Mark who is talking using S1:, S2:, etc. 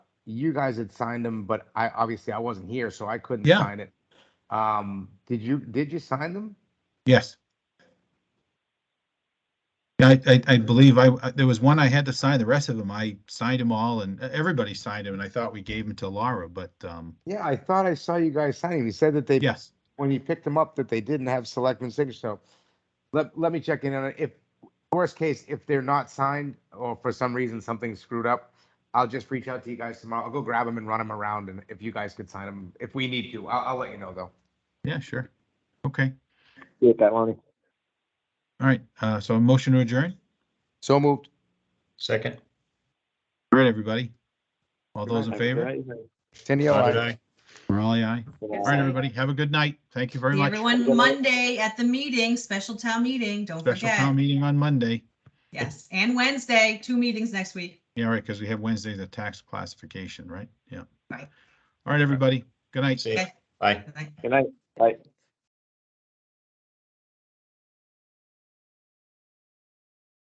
S1: you guys had signed them, but I, obviously I wasn't here, so I couldn't
S2: Yeah.
S1: sign it. Um, did you, did you sign them?
S2: Yes. Yeah, I, I, I believe I, I- there was one I had to sign, the rest of them, I signed them all and uh, everybody signed them and I thought we gave them to Laura, but, um,
S1: Yeah, I thought I saw you guys signing. You said that they,
S2: yes.
S1: when you picked them up, that they didn't have selectmen signature. So let, let me check in on it. If, worst case, if they're not signed or for some reason something screwed up, I'll just reach out to you guys tomorrow. I'll go grab them and run them around and if you guys could sign them, if we need to, I'll, I'll let you know though.
S2: Yeah, sure. Okay,
S3: Do it that Lonnie.
S2: all right, uh, so a motion to adjourn?
S1: So moved.
S4: Second.
S2: All right, everybody? All those in favor?
S3: Good
S1: Tenio, aye.
S2: Morale, aye. All right,
S3: night.
S2: everybody, have a good night. Thank you very
S5: See
S2: much.
S5: everyone Monday at the meeting, special town meeting, don't
S2: Special town
S5: forget.
S2: meeting on Monday.
S5: Yes, and Wednesday, two meetings next week.
S2: Yeah, right, because we have Wednesday, the tax classification, right? Yeah.
S5: Right.
S2: All right, everybody, good night.
S4: See you.
S5: Okay.
S4: Bye.
S5: Good night.
S3: Good night. Bye.